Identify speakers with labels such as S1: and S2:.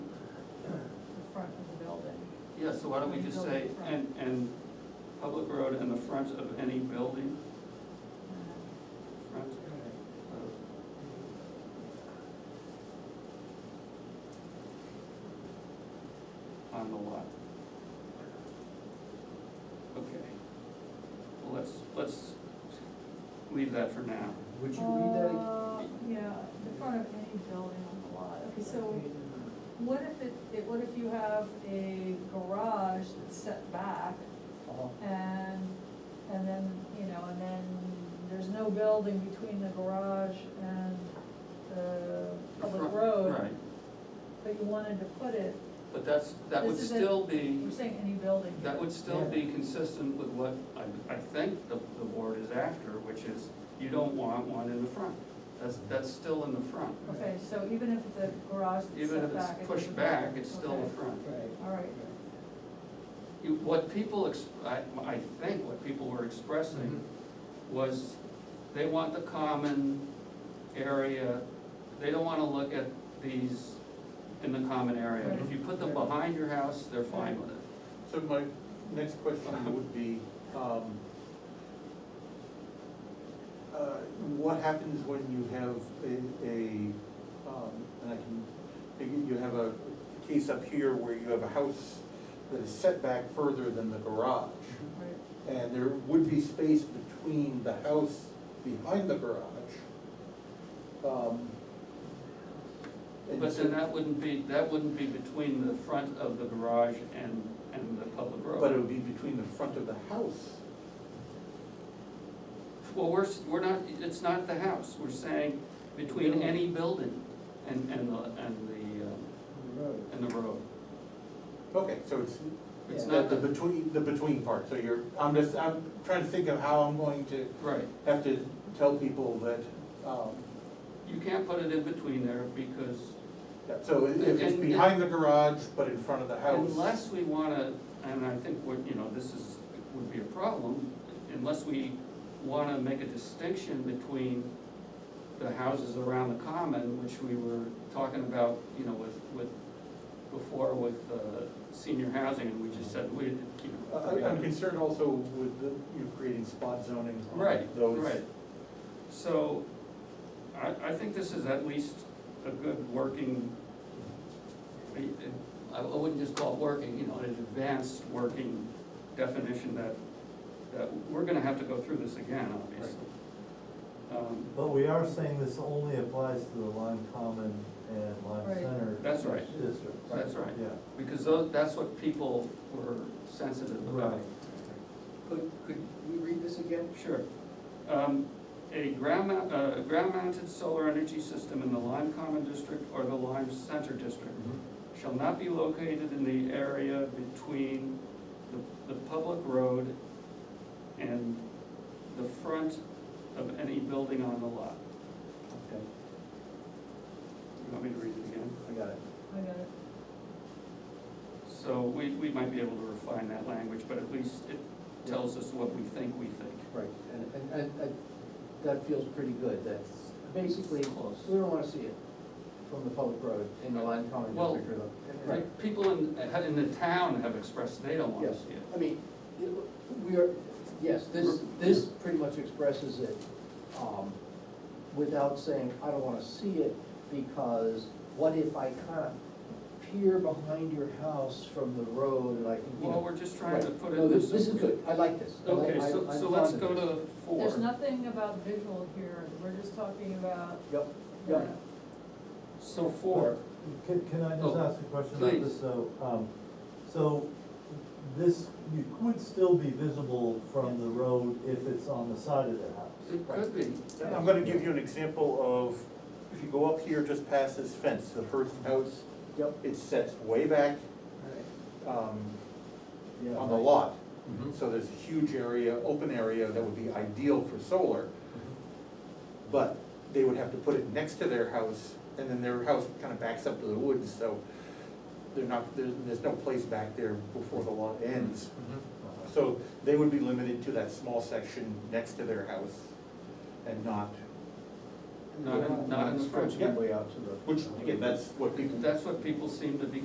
S1: Yeah, so why don't we just say, and, and public road and the front of any building,
S2: Um,
S1: front uh, of, on the lot. Okay. Well, let's, let's leave that for now.
S3: Would you read that again?
S2: Uh, Yeah, the front of any building on the lot, okay, so what if it, it- what if you have a garage that's set back
S3: Uh-huh.
S2: and, and then, you know, and then there's no building between the garage and the
S1: The
S2: public
S1: front-
S2: road,
S1: Right,
S2: but you wanted to put it,
S1: but that's, that would
S2: This is a-
S1: still be,
S2: you're saying any building.
S1: that would still be consistent with what I, I think the, the board is after, which is you don't want one in the front. That's, that's still in the front.
S2: Okay, so even if the garage is
S1: Even if
S2: set
S1: it's
S2: back. it
S1: pushed
S2: doesn't
S1: back,
S2: matter.
S1: it's still in
S2: Okay,
S1: front.
S3: Right.
S2: All right,
S1: You- What people, ex- I, I think what people were expressing was they want the common area, they don't wanna look at these in the common area. If you put them behind your house, they're fine with it.
S4: So my next question would be, um, uh, what happens when you have a, a, um, and I can, maybe you have a case up here where you have a house that is set back further than the garage,
S3: Mm-hmm.
S2: right.
S4: and there would be space between the house behind the garage. um, and
S1: But
S4: so-
S1: then that wouldn't be, that wouldn't be between the front of the garage and, and the public road.
S4: But it would be between the front of the house
S1: Well, we're, s- we're not, it's not the house, we're saying between any building and, and the, and the, uh,
S3: Road.
S1: and the road.
S4: Okay, so it's,
S1: It's
S4: it's
S1: not
S4: not the between, the between part, so you're, I'm just, I'm trying to think of how I'm going to
S1: Right,
S4: have to tell people that, um,
S1: you can't put it in between there because
S4: that- so if it's
S1: And-
S4: behind the garage, but in front of the house.
S1: unless we wanna, and I think what, you know, this is, would be a problem, unless we wanna make a distinction between the houses around the common, which we were talking about, you know, with, with, before with, uh, senior housing, and we just said, we, you
S4: I-
S1: know.
S4: I- uh, I'm concerned also with the, you know, creating spot zoning on
S1: Right,
S4: those.
S1: right. So, I, I think this is at least a good working, I, I wouldn't just call it working, you know, an advanced working definition that, that, we're gonna have to go through this again, obviously. Um,
S5: But we are saying this only applies to the Lime Common and Lime
S2: Right.
S5: Center.
S1: That's right.
S5: Districts.
S1: That's right,
S5: Yeah.
S1: because those, that's what people were sensitive about.
S3: Could, could we read this again?
S1: Sure. Um, A ground mount, uh, ground mounted solar energy system in the Lime Common District or the Lime Center District
S3: Mm-hmm.
S1: shall not be located in the area between the, the public road and the front of any building on the lot.
S3: Okay,
S1: You want me to read it again?
S3: I got it.
S2: I got it.
S1: So we, we might be able to refine that language, but at least it tells us what we think we think.
S3: Right, and, and, and, and that feels pretty good, that's basically,
S1: Close.
S3: we don't wanna see it from the public road in the line common
S1: Well,
S3: district or the.
S1: Right, people in, uh, in the town have expressed they don't wanna
S3: Yes,
S1: see it.
S3: I mean, it- we are, yes, this, this pretty much expresses it, um, without saying, I don't wanna see it, because what if I kinda peer behind your house from the road and I can, you know.
S1: Well, we're just trying to
S3: Right.
S1: put it
S3: No,
S1: in
S3: this,
S1: this.
S3: this is good, I like this. I like-
S1: Okay,
S3: I-
S1: so,
S3: I'm
S1: so let's
S3: fond
S1: go
S3: of this.
S1: to four.
S2: There's nothing about visual here, we're just talking about.
S3: Yep,
S2: uh,
S3: yep.
S1: So four,
S5: Can, can I just
S1: Oh,
S5: ask a question about
S1: please.
S5: this? So, um, so this, you would still be visible from the road if it's on the side of the house.
S1: it could be,
S4: I'm gonna give you an example of, if you go up here just past this fence, the first house,
S3: Yep.
S4: it sets way back, um,
S3: Yeah,
S4: on the
S3: right.
S4: lot. So there's a huge area, open area that would be ideal for solar. But they would have to put it next to their house, and then their house kind of backs up to the woods, so they're not, there's, there's no place back there before the lot ends. So they would be limited to that small section next to their house and not,
S1: not in, not in the front.
S3: Stretching way out to the.
S4: which, again, that's what people
S1: That's what people seem to be